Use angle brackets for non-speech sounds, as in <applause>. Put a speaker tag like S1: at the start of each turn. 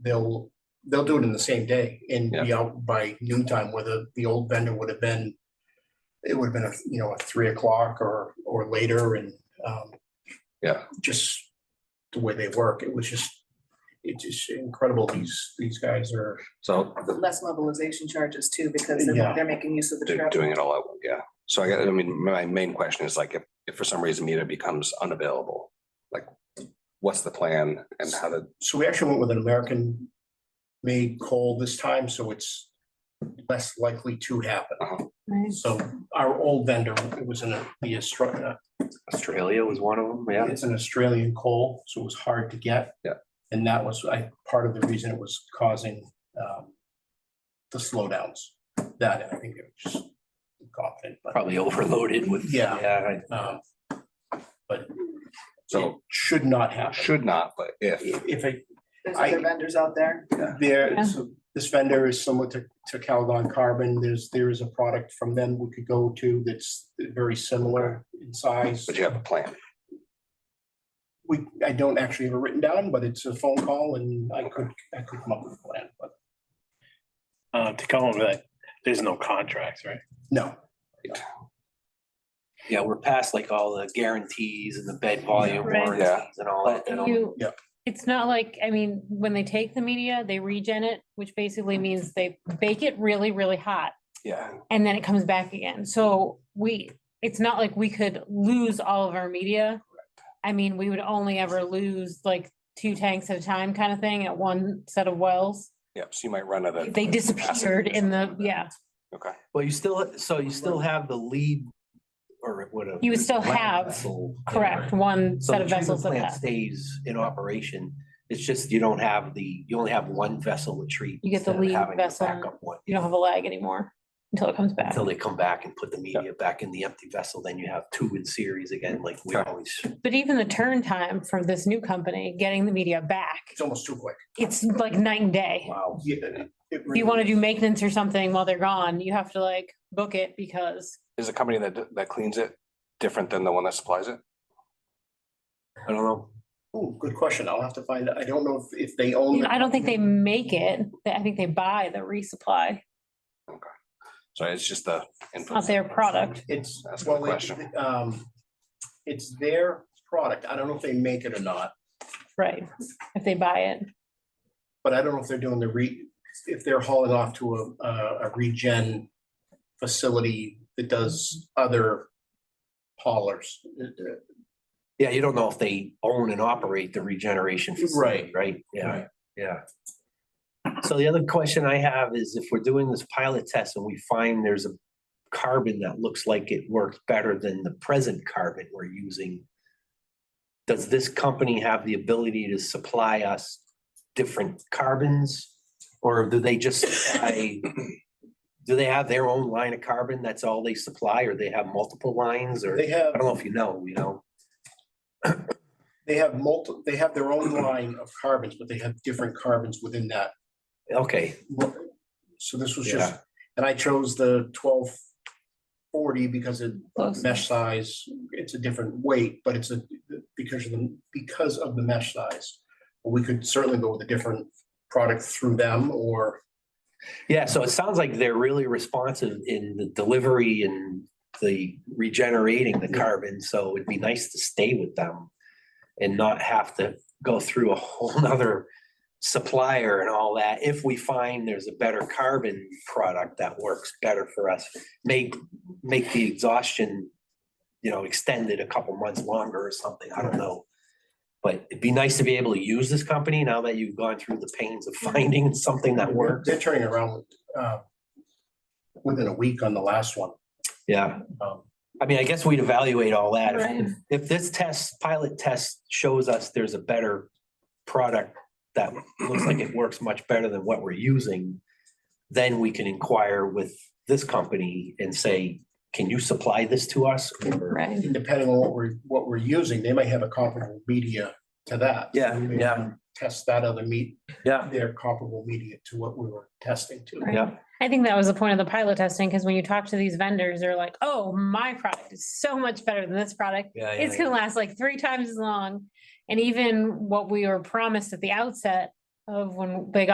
S1: they'll, they'll do it in the same day and be
S2: Yeah.
S1: out by noon time, whether the old vendor would have been, it would have been, a you know, at three o'clock or, or later and, um,
S2: Yeah.
S1: Just the way they work, it was just, it's just incredible. These, these guys are,
S2: So the-
S3: less mobilization charges too, because
S1: Yeah.
S3: they're, they're making use of the
S2: they're
S3: travel.
S2: doing it all out, yeah. So I got, I mean, my main question is like, if, if for some reason Mita becomes unavailable, like, what's the plan and how to,
S1: so we actually went with an American made call this time, so it's less likely to happen. So our old vendor, it was in a- the instructor,
S4: Australia was one of them, yeah.
S1: It's an Australian coal, so it was hard to get.
S2: Yeah.
S1: And that was, I, part of the reason it was causing, um, the slowdowns, that, and I think it was just confident, but,
S4: Probably overloaded with.
S1: Yeah.
S4: Yeah. I-
S1: um, but it
S2: so
S1: should not happen.
S2: should not, but if,
S1: If it,
S3: There's
S1: I-
S3: other vendors out there.
S1: there, so this vendor is similar to, to Calgon Carbon, there's, there is a product from them we could go to that's very similar in size.
S2: but you have a plan.
S1: We, I don't actually have it written down, but it's a phone call and I could, I could come up with a plan, but
S5: Uh, to come over that, there's no contracts, right?
S1: no.
S4: Yeah, we're past like all the guarantees and the bed volume
S6: Right.
S4: warranties and all that. you know?
S6: You.
S1: Yep.
S6: It's not like, I mean, when they take the media, they regen it, which basically means they bake it really, really hot
S2: Yeah.
S6: and then it comes back again. So we, it's not like we could lose all of our media. I mean, we would only ever lose like two tanks at a time kind of thing at one set of wells.
S2: Yep, so you might run out of.
S6: They
S2: capacity
S6: disappeared
S2: or
S6: in the,
S2: something like
S6: yeah,
S2: that. Okay,
S4: Well, you still, so you still have the lead or whatever.
S6: You would still
S4: land
S6: have,
S4: vessel.
S6: correct, one
S4: So
S6: set
S4: the
S6: of
S4: treatment
S6: vessels of
S4: plant
S6: that.
S4: Stays in operation. It's just you don't have the, you only have one vessel to treat.
S6: You get the
S4: instead of
S6: lead
S4: having a
S6: vessel.
S4: backup one.
S6: You don't have a lag anymore until it comes back.
S4: Until they come back and put the media back in the empty vessel, then you have two in series again, like we
S2: Okay.
S4: always.
S6: But even the turn time for this new company, getting the media back,
S1: It's almost too quick.
S6: it's like night and day.
S4: Wow.
S1: Yeah. it
S6: If you want to do maintenance or something while they're gone, you have to like book it because
S2: is a company that, that cleans it different than the one that supplies it?
S4: I don't know.
S1: Ooh, good question. I'll have to find, out. I don't know if, if they own.
S6: you know,
S1: the-
S6: I don't think they make it. I think they buy the resupply
S2: So it's just the. input.
S6: of their product.
S1: It's,
S2: That's my
S1: well,
S2: question.
S1: it- um, it's their product. I don't know if they make it or not,
S6: Right. If they buy it.
S1: but I don't know if they're doing the re, if they're hauling off to a, a a regen facility that does other haulers. Uh,
S4: Yeah, you don't know if they own and operate the regeneration facility, right? Yeah,
S1: Right.
S4: yeah. So the other question I have is if we're doing this pilot test and we find there's a carbon that looks like it works better than the present carbon we're using, does this company have the ability to supply us different carbons? Or do they just, supply do they have their own line of carbon? That's all they supply, or they have multiple lines or?
S1: They
S4: I
S1: have,
S4: don't know if you know, you know?
S1: they have multi, they have their own line of carbons, but they have different carbons within that.
S4: Okay,
S1: So this was just, and I chose the twelve forty because it
S6: Close.
S1: mesh size, it's a different weight, but it's a, because of the, because of the mesh size. We could certainly go with a different product through them or,
S4: yeah, so it sounds like they're really responsive in the delivery and the regenerating the carbon, so it'd be nice to stay with them. And not have to go through a <laughs> whole nother supplier and all that, if we find there's a better carbon product that works better for us. Make, make the exhaustion, you know, extended a couple months longer or something, I don't know. But it'd be nice to be able to use this company now that you've gone through the pains of finding something that works.
S1: they're turning around, uh, within a week on the last one.
S4: Yeah,
S1: Um,
S4: I mean, I guess we'd evaluate all that. If-
S6: Right.
S4: If this test, pilot test shows us there's a better product that looks like it works much better than what we're using, then we can inquire with this company and say, can you supply this to us? Or-
S6: Right.
S1: and Depending on what we're, what we're using, they might have a comparable media to that.
S4: Yeah,
S1: We may
S4: yeah.
S1: Test that other meat,
S4: Yeah,
S1: their comparable media to what we were testing to.
S6: Right.
S4: yeah,
S6: I think that was the point of the pilot testing because when you talk to these vendors, they're like, oh, my product is so much better than this product.
S4: yeah.
S6: it's
S4: yeah.
S6: gonna last like three times as long. And even what we were promised at the outset of when they got